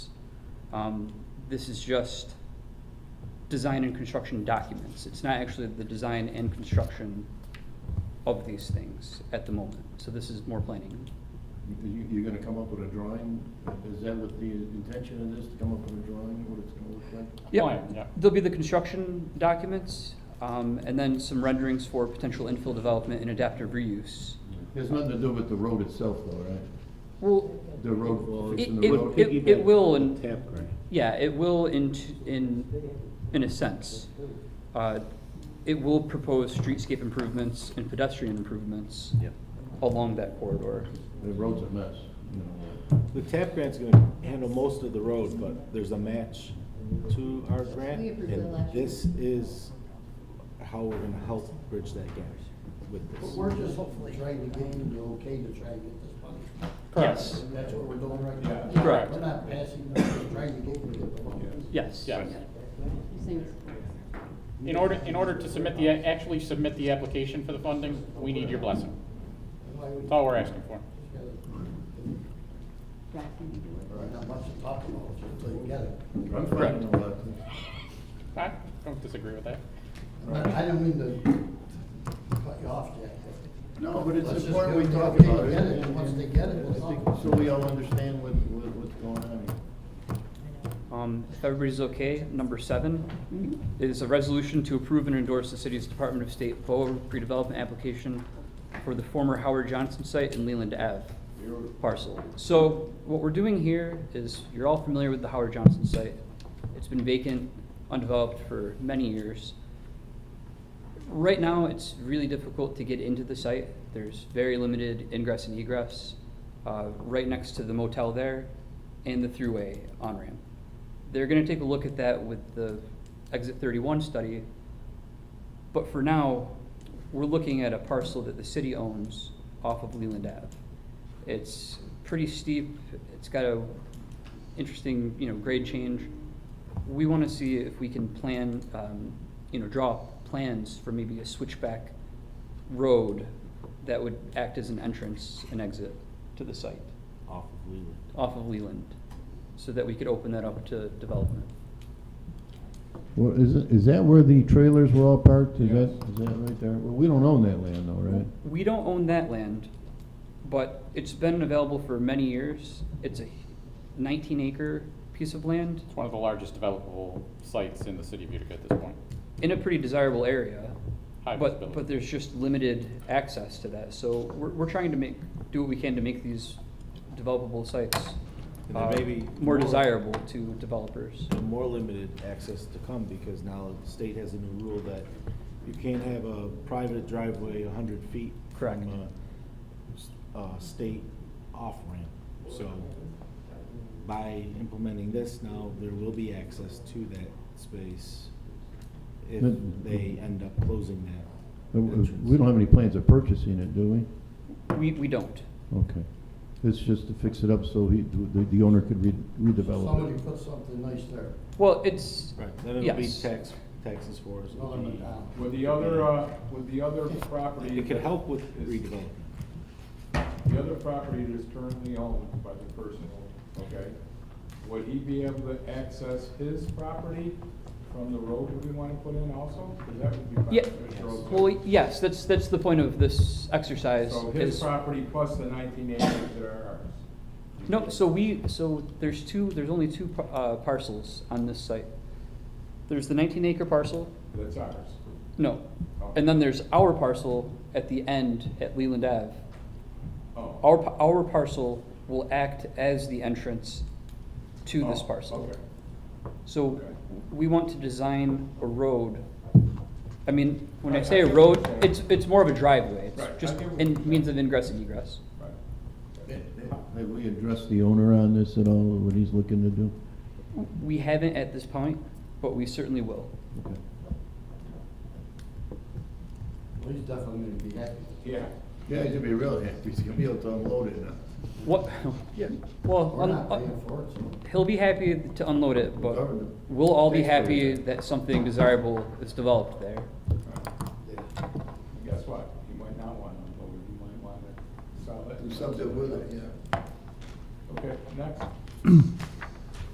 Um, This is just design and construction documents. It's not actually the design and construction of these things at the moment. So this is more planning. You, you're gonna come up with a drawing? Is that what the intention of this, to come up with a drawing, what it's gonna look like? Yep, Plan, yeah. there'll be the construction documents, um, and then some renderings for potential infill development and adaptive reuse. Mm-hmm. There's nothing to do with the road itself though, right? Well, The road, it, fixing the road? it, it- it will, and, Tap grant. yeah, it will in, t- in, in a sense. Uh, It will propose streetscape improvements and pedestrian improvements Yep. along that corridor. The road's a mess, you know. The tap grant's gonna handle most of the road, but there's a match to our grant. We approved it And last year. this is how we're gonna help bridge that gap with But this. we're just hopefully trying to gain the okay to try and get this money. Yes. That's what we're doing right now. Yeah. Correct. We're not passing, we're just trying to get them to get the money. Yes. Yes. You're saying it's- In order, in order to submit the, actually submit the application for the funding, we need your blessing. Why would- That's all we're asking for. Brad, can you do it? There's Not much to talk about, just so you can get it. I'm fine Correct. with all that. I don't disagree with that. I I didn't mean to cut you off, Jack. No, but Let's it's just important get we the talk okay to about it. get it, and once they get it, we'll I think- talk. So we all understand what, what, what's going on here. Um, If everybody's okay, number seven is a resolution to approve and endorse the city's Department of State FOA redevelopment application for the former Howard Johnson site in Leland Ave parcel. So what we're doing here is, you're all familiar with the Howard Johnson site. It's been vacant, undeveloped for many years. Right now, it's really difficult to get into the site. There's very limited ingress and egress, uh, right next to the motel there and the throughway on-ramp. They're gonna take a look at that with the exit thirty-one study. But for now, we're looking at a parcel that the city owns off of Leland Ave. It's pretty steep, it's got a interesting, you know, grade change. We wanna see if we can plan, um, you know, draw plans for maybe a switchback road that would act as an entrance and exit to the site Off of Leland. off of Leland, so that we could open that up to development. Well, is, it- is that where the trailers were all parked? Is that, Yes. is that right there? Well, we don't own that land though, right? We don't own that land, but it's been available for many years. It's a nineteen acre piece of land It's one of the largest developable sites in the city of Utica at this point. in a pretty desirable area. High But, visibility. but there's just limited access to that, so we're, we're trying to make, do what we can to make these developable sites And there uh, may be more more- desirable to developers. and more limited access to come because now the state has a new rule that you can't have a private driveway hundred feet. Correct. From a, s- uh, state off-ramp, so by implementing this now, there will be access to that space if But- they end up closing that. Uh, uh, entrance. We don't have any plans of purchasing it, do we? We, we don't. Okay. It's just to fix it up so he, the, the owner could re- redevelop Somebody it. put something nice there. Well, it's, Right, then it'll be Yes. tax, taxes for us. It's not on the down. With the other, uh, with the other property. It could help with is- redevelopment. The other property that is currently owned by the person, okay? Would he be able to access his property from the road that we want to put in also? Because that would be Yeah. beneficial. well, yes, that's, that's the point of this exercise. So his is- property plus the nineteen acres that are ours. No, so we, so there's two, there's only two par- uh, parcels on this site. There's the nineteen acre parcel, That's ours. no, Oh. and then there's our parcel at the end at Leland Ave. Oh. Our, pa- our parcel will act as the entrance to this Oh, parcel. Okay. So okay. we want to design a road. I mean, when I I- say I a get road, what you're saying. it's, it's more of a driveway. Right, I It's just get what you're in saying. means of ingress and egress. Right. Have we addressed the owner on this at all, what he's looking to do? We haven't at this point, but we certainly will. Okay. Well, He's definitely gonna be happy. Yeah. Yeah, he's gonna be real happy, he's gonna be able to unload it now. What, Yeah. well, uh, We're un- not un- paying for it, so. He'll be happy to unload it, but Government. we'll all be Thanks for happy that. that something desirable is developed there. Guess what? He might not want to unload it. He might want to sell it. Do something with it, yeah. Okay, next.